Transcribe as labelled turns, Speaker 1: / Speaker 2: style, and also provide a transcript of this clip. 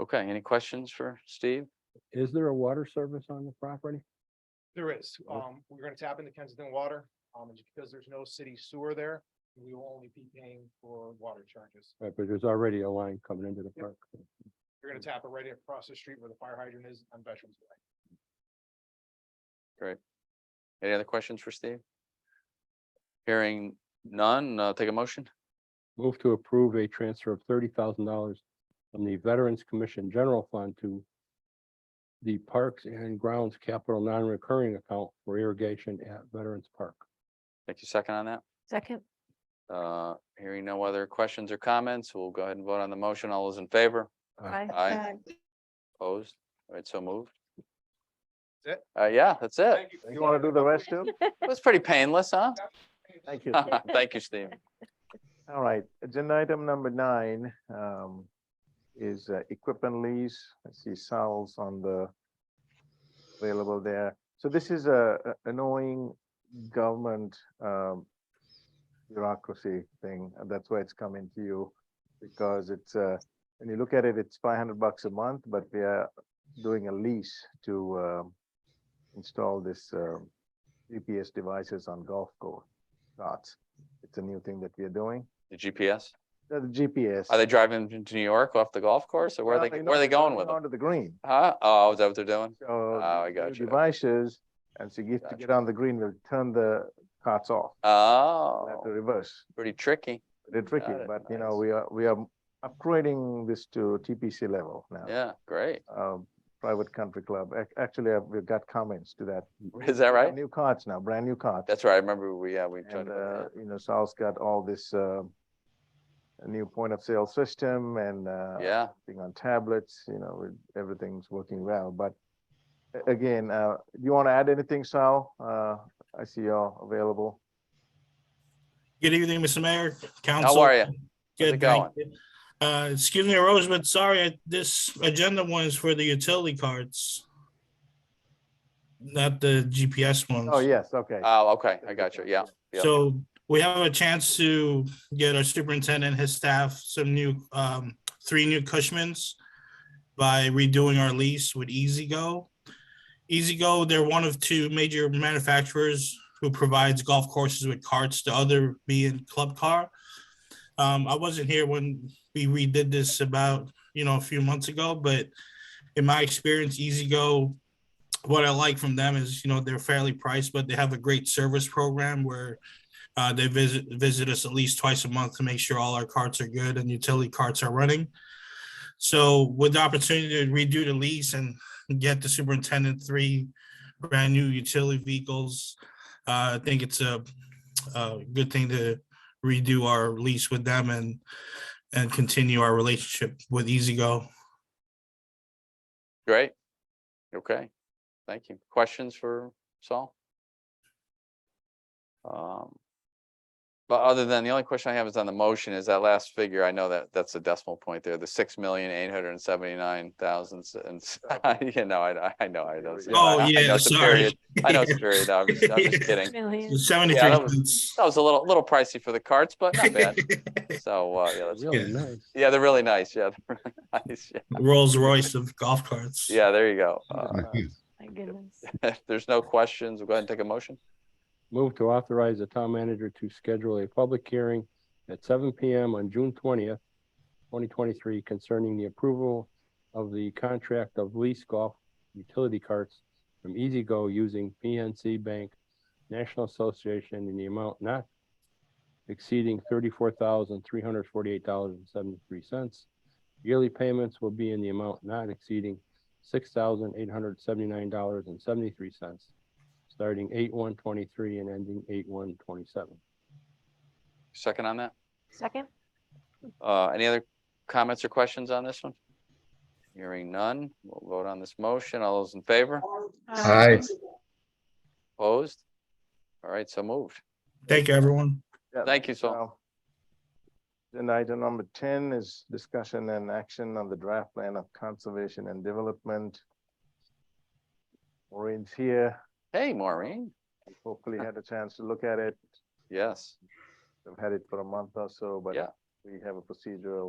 Speaker 1: Okay, any questions for Steve?
Speaker 2: Is there a water service on the property?
Speaker 3: There is,
Speaker 2: Oh.
Speaker 3: um, we're gonna tap into Kensington Water, um, and because there's no city sewer there, we will only be paying for water charges.
Speaker 2: Right, but there's already a line coming into the
Speaker 3: Yep.
Speaker 2: park.
Speaker 3: You're gonna tap it right across the street where the fire hydrant is on Veterans Way.
Speaker 1: Any other questions for Steve? Hearing none, uh, take a motion.
Speaker 2: Move to approve a transfer of thirty thousand dollars from the Veterans Commission General Fund to the Parks and Grounds Capital Non-Recurring Account for Irrigation at Veterans Park.
Speaker 1: Thank you, second on that.
Speaker 4: Second,
Speaker 1: Uh, hearing no other questions or comments, we'll go ahead and vote on the motion. All those in favor?
Speaker 4: aye.
Speaker 1: Aye. Opposed? All right, so moved.
Speaker 3: That's
Speaker 1: Uh, yeah, that's it.
Speaker 3: Thank you.
Speaker 5: You want to do the rest too?
Speaker 1: It was pretty painless, huh?
Speaker 5: Thank you.
Speaker 1: Thank you, Steve.
Speaker 5: All right, agenda item number nine um, is uh, equipment lease. I see Sal's on the available there. So this is a a- annoying government um, bureaucracy thing. and That's why it's coming to you because it's, uh, when you look at it, it's five hundred bucks a month, but we are doing a lease to um, install this um, GPS devices on golf course lots. It's a new thing that we are doing.
Speaker 1: The GPS,
Speaker 5: The GPS.
Speaker 1: are they driving into New York off the golf course or where are they,
Speaker 5: Well,
Speaker 1: where are they
Speaker 5: no,
Speaker 1: going with them?
Speaker 5: Onto the green.
Speaker 1: Huh? Oh, is that what they're doing?
Speaker 5: So.
Speaker 1: I
Speaker 5: the
Speaker 1: got you, okay.
Speaker 5: Devices, and so you have
Speaker 1: Gotcha.
Speaker 5: to get on the green, we'll turn the carts off, We'll have to
Speaker 1: Oh,
Speaker 5: reverse.
Speaker 1: pretty tricky.
Speaker 5: They're tricky,
Speaker 1: Got it,
Speaker 5: but you know,
Speaker 1: nice.
Speaker 5: we are, we are upgrading this to TPC level now.
Speaker 1: Yeah, great.
Speaker 5: Um, private country club. Ac- Actually, I've- we've got comments to that.
Speaker 1: Is that right?
Speaker 5: New carts now, brand new carts.
Speaker 1: That's right. I remember we, yeah, we tried
Speaker 5: And,
Speaker 1: to.
Speaker 5: uh, you know, Sal's got all this, uh, a new point of sale system and, uh,
Speaker 1: Yeah,
Speaker 5: everything on tablets, you know, with- everything's working well, but a- again, uh, do you want to add anything, Sal? Uh, I see y'all available.
Speaker 6: Good evening, Mr. Mayor, Council.
Speaker 1: how are you?
Speaker 6: Good,
Speaker 1: going?
Speaker 6: thank you. Uh, excuse me, Rose, but sorry, I- this agenda one is for the utility cards. Not the GPS ones.
Speaker 5: Oh, yes, okay.
Speaker 1: Oh, okay, I got you, yeah. yeah.
Speaker 6: So we have a chance to get our superintendent, his staff, some new, um, three new Cushmans by redoing our lease with E EasyGo. E EasyGo, they're one of two major manufacturers who provides golf courses with carts, the other being Club Car. Um, I wasn't here when we redid this about, you know, a few months ago, but in my experience, E EasyGo what I like from them is, you know, they're fairly priced, but they have a great service program where uh, they visit visit us at least twice a month to make sure all our carts are good and utility carts are running. So with the opportunity to redo the lease and get the superintendent three brand new utility vehicles, uh, I think it's a, a good thing to redo our lease with them and and continue our relationship with EasyGo.
Speaker 1: Great. Okay, thank you. Questions for Saul? Um. But other than, the only question I have is on the motion is that last figure. I know that that's a decimal point there, the six million eight hundred and seventy-nine thousand and, s- you know, I, I know, I know.
Speaker 5: Oh,
Speaker 1: I- I know
Speaker 6: yeah,
Speaker 1: it's a
Speaker 6: sorry.
Speaker 1: period. I know it's a period. I'm just I'm just kidding.
Speaker 4: Million.
Speaker 6: Seventy-three
Speaker 1: Yeah, that was-
Speaker 6: cents.
Speaker 1: That was a little, little pricey for the carts, but not bad. So, uh, yeah, that's,
Speaker 2: Really nice.
Speaker 1: yeah, they're really nice. Yeah, they're really nice. Yeah.
Speaker 6: Rolls Royce of golf carts.
Speaker 1: Yeah, there you go. Uh,
Speaker 4: My goodness.
Speaker 1: If there's no questions, we'll go ahead and take a motion.
Speaker 2: Move to authorize the town manager to schedule a public hearing at seven P M on June twentieth, twenty twenty-three concerning the approval of the contract of lease golf utility carts from EasyGo using PNC Bank National Association in the amount not exceeding thirty-four thousand, three hundred forty-eight dollars and seventy-three cents. Yearly payments will be in the amount not exceeding six thousand, eight hundred seventy-nine dollars and seventy-three cents starting eight one twenty-three and ending eight one twenty-seven.
Speaker 1: Second on that?
Speaker 4: Second,
Speaker 1: Uh, any other comments or questions on this one? Hearing none, we'll vote on this motion. All those in favor?
Speaker 4: um,
Speaker 7: Aye.
Speaker 1: Opposed? All right, so moved.
Speaker 6: Thank you, everyone.
Speaker 5: Yeah,
Speaker 1: Thank you, Saul.
Speaker 5: now, Agenda item number ten is discussion and action on the draft plan of conservation and development. Maureen's here,
Speaker 1: Hey, Maureen.
Speaker 5: hopefully had a chance to look at it.
Speaker 1: Yes.
Speaker 5: I've had it for a month or so, but
Speaker 1: Yeah.
Speaker 5: we have a procedural